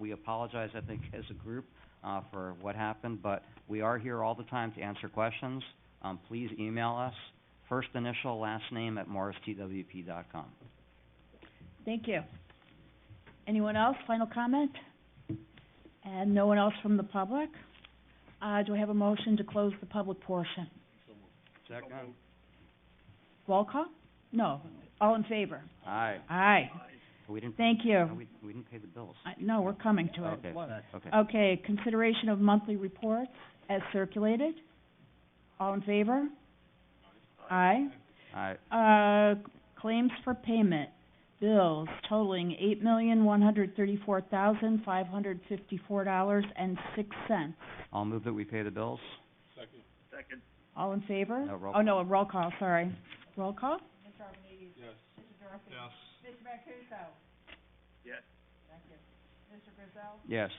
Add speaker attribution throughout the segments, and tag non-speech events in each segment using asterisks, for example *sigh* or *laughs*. Speaker 1: we apologize, I think, *laughs* as a group, uh, for what happened, but we are here all the time to answer questions. Um, please email us, first initial, last name at morristwp.com.
Speaker 2: Thank you. Anyone else, final comment? And no one else from the public? Uh, do I have a motion to close the public portion?
Speaker 1: Second.
Speaker 2: Roll call? No, all in favor?
Speaker 1: Aye.
Speaker 2: Aye,
Speaker 1: We didn't,
Speaker 2: thank you.
Speaker 1: no, we, we didn't pay the bills.
Speaker 2: I- No, we're coming to it.
Speaker 1: Okay, okay.
Speaker 2: Okay, consideration of monthly reports as circulated. All in favor? Aye.
Speaker 1: Aye.
Speaker 2: Uh, claims for payment, bills totaling eight million, one hundred thirty-four thousand, five hundred fifty-four dollars and six cents.
Speaker 1: I'll move that we pay the bills.
Speaker 2: All in favor?
Speaker 1: No, roll
Speaker 2: Oh, no, a roll call, sorry. Roll call?
Speaker 1: Yes.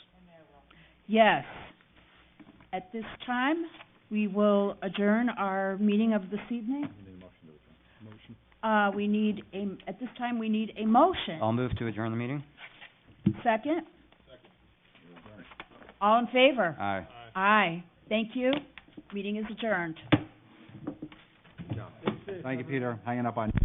Speaker 2: Yes. At this time, we will adjourn our meeting of this evening. Uh, we need a, at this time, we need a motion.
Speaker 1: I'll move to adjourn the meeting.
Speaker 2: Second? All in favor?
Speaker 1: Aye.
Speaker 2: Aye. Thank you. Meeting is adjourned.
Speaker 1: Thank you, Peter. Hanging up on